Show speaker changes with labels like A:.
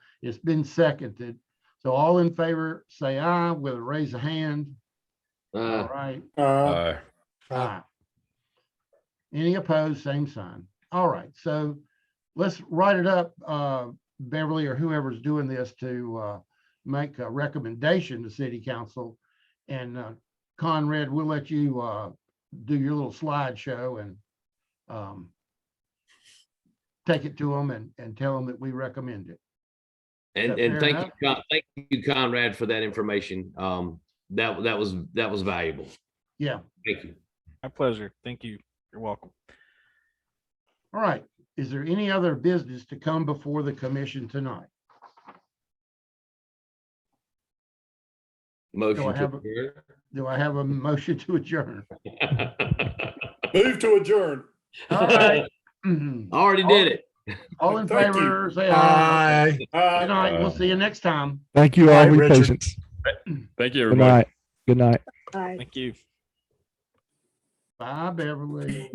A: It's been seconded. So all in favor, say aye with a raise of hand. All
B: Uh,
A: right.
C: Uh,
D: Aye.
A: Aye. Any opposed, same sign. All right, so let's write it up, uh, Beverly or whoever's doing this to, uh, make a recommendation to city council. And, uh, Conrad, we'll let you, uh, do your little slideshow and, um, take it to them and, and tell them that we recommend it.
B: and,
A: Yeah, fair
B: and thank you,
A: enough.
B: Con- thank you Conrad for that information. Um, that, that was, that was valuable.
A: Yeah,
B: Thank you.
E: My pleasure. Thank you. You're welcome.
A: all right. Is there any other business to come before the commission tonight?
B: Motion
A: have a-
B: to
A: Do I have a motion to adjourn?
B: adjourn.
C: move to adjourn.
A: All right. Mhm.
B: Already did it.
A: All in
C: Thank you.
A: favor, say aye.
F: Aye.
C: Uh,
A: Good night. We'll see you next time.
F: Thank you all
C: Aye,
F: for your
C: Richard.
F: patience.
D: Thank you,
F: Good
D: everybody.
F: night. Good night.
G: Aye.
E: Thank you.
A: Bye, Beverly.